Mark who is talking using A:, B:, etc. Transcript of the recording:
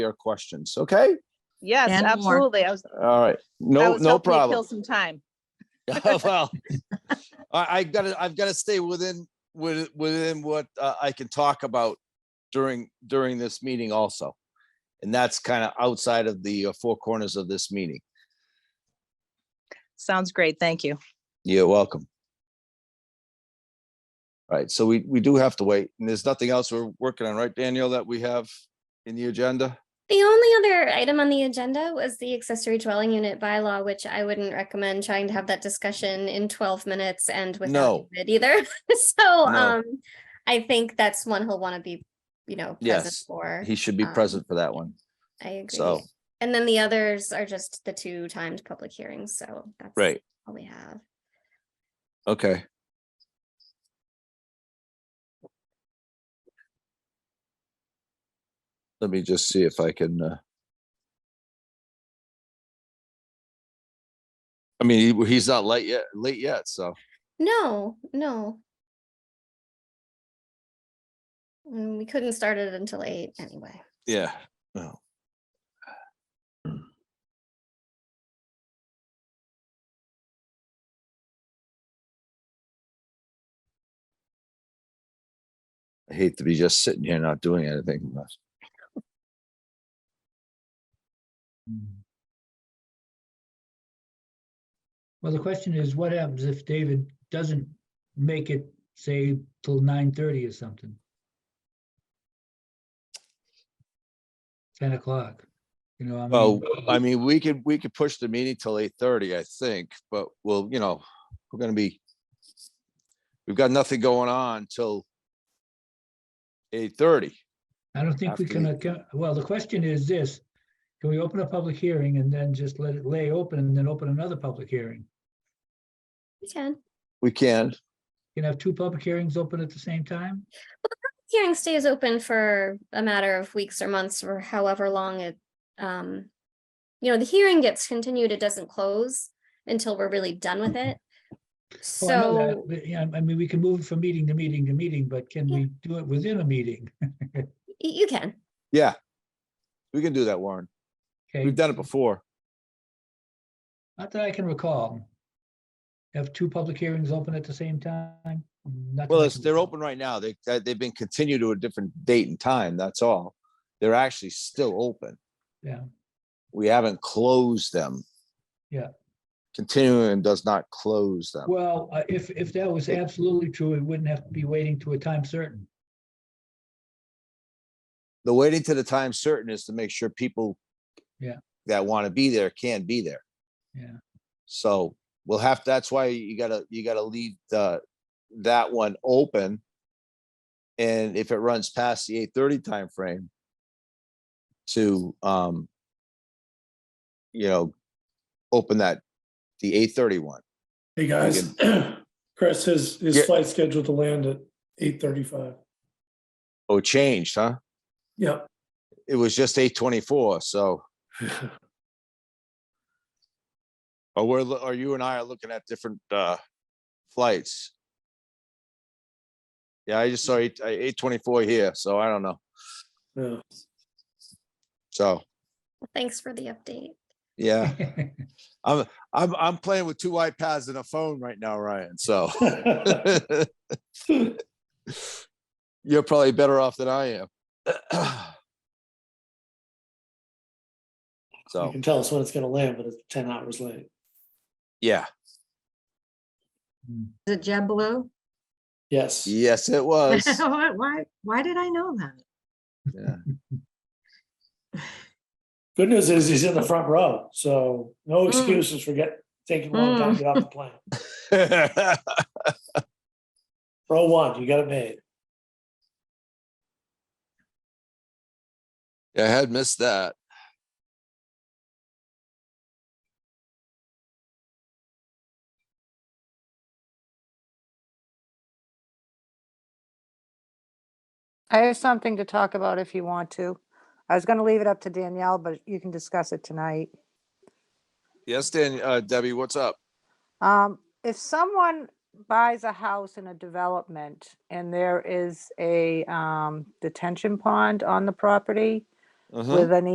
A: your questions, okay?
B: Yes,
C: And more.
B: absolutely. I was,
A: All right,
B: I
A: no,
B: was
A: no
B: hoping to kill
A: problem.
B: some time.
A: Oh, Well, I, I gotta, I've gotta stay within, with, within what uh, I can talk about during, during this meeting also. And that's kind of outside of the uh, four corners of this meeting.
B: Sounds great. Thank you.
A: You're welcome. All right, so we, we do have to wait, and there's nothing else we're working on, right, Daniel, that we have in the agenda?
D: The only other item on the agenda was the accessory dwelling unit bylaw, which I wouldn't recommend trying to have that discussion in twelve minutes and
A: No.
D: without it either. So,
A: No.
D: um, I think that's one he'll want to be, you know, present
A: Yes.
D: for.
A: He should be
D: Um,
A: present for that one.
D: I
A: so-
D: agree. And then the others are just the two timed public hearings, so that's
A: Right.
D: all we have.
A: Okay. Let me just see if I can, uh. I mean, he- he's not late yet, late yet, so,
D: No, no. Mm, We couldn't start it until eight anyway.
A: yeah, no. I hate to be just sitting here not doing anything. but-
E: Well, the question is, what happens if David doesn't make it, say, till nine thirty or something? Ten o'clock, you know, I
A: Well,
E: mean,
A: I mean, we could, we could push the meeting till eight thirty, I think, but we'll, you know, we're gonna be. We've got nothing going on till. Eight thirty.
E: I don't think
A: after
E: we can,
A: the-
E: acco- well, the question is this. Can we open a public hearing and then just let it lay open and then open another public hearing?
D: We can.
A: We can.
E: You can have two public hearings open at the same time?
D: Hearing stays open for a matter of weeks or months or however long it, um, you know, the hearing gets continued, it doesn't close until we're really done with it.
E: Oh, I know that,
D: So,
E: but, Yeah, I mean, we can move from meeting to meeting to meeting, but can
D: Yeah.
E: we do it within a meeting?
D: y- you can,
A: Yeah. We can do that, Warren.
E: Okay.
A: We've done it before.
E: Not that I can recall. Have two public hearings open at the same time? Not that
A: Well,
E: I
A: it's,
E: can
A: they're
E: recall.
A: open right now. They, they- they've been continued to a different date and time, that's all. They're actually still open.
E: Yeah.
A: We haven't closed them.
E: Yeah.
A: Continuing does not close them.
E: Well, uh, if, if that was absolutely true, it wouldn't have to be waiting to a time certain.
A: the waiting to the time certain is to make sure people.
E: Yeah.
A: That want to be there can be there.
E: Yeah.
A: So we'll have, that's why you gotta, you gotta leave the, that one open. And if it runs past the eight thirty timeframe. To, um. You know, open that, the eight thirty one.
F: Hey, guys, Chris, his,
A: Yeah.
F: his flight's scheduled to land at eight thirty-five.
A: Oh, it changed, huh?
F: Yep.
A: It was just eight twenty four, so, or we're, lo- or you and I are looking at different, uh, flights. Yeah, I just saw eight, uh, eight twenty-four here, so I don't know.
F: Yeah.
A: So,
D: thanks for the update.
A: yeah,
E: Well,
A: I'm, I'm, I'm playing with two iPads and a phone right now, Ryan, so. You're probably better off than I am.
F: You
A: So,
F: can tell us when it's gonna land, but it's ten hours late.
A: yeah,
E: Hmm.
C: Is it JetBlue?
F: Yes.
A: yes, it was.
C: Why, why- why did I know that?
F: Good news is he's in the front row, so no
C: Mm.
F: excuses for get, taking a long time to get off the plane. Row one, you got it made.
A: Yeah, I had missed that.
G: I have something to talk about if you want to. I was gonna leave it up to Danielle, but you can discuss it tonight.
A: Yes, Dan, uh, Debbie, what's up?
G: Um, if someone buys a house in a development and there is a, um, detention pond on the property
A: Uh-huh.
G: with an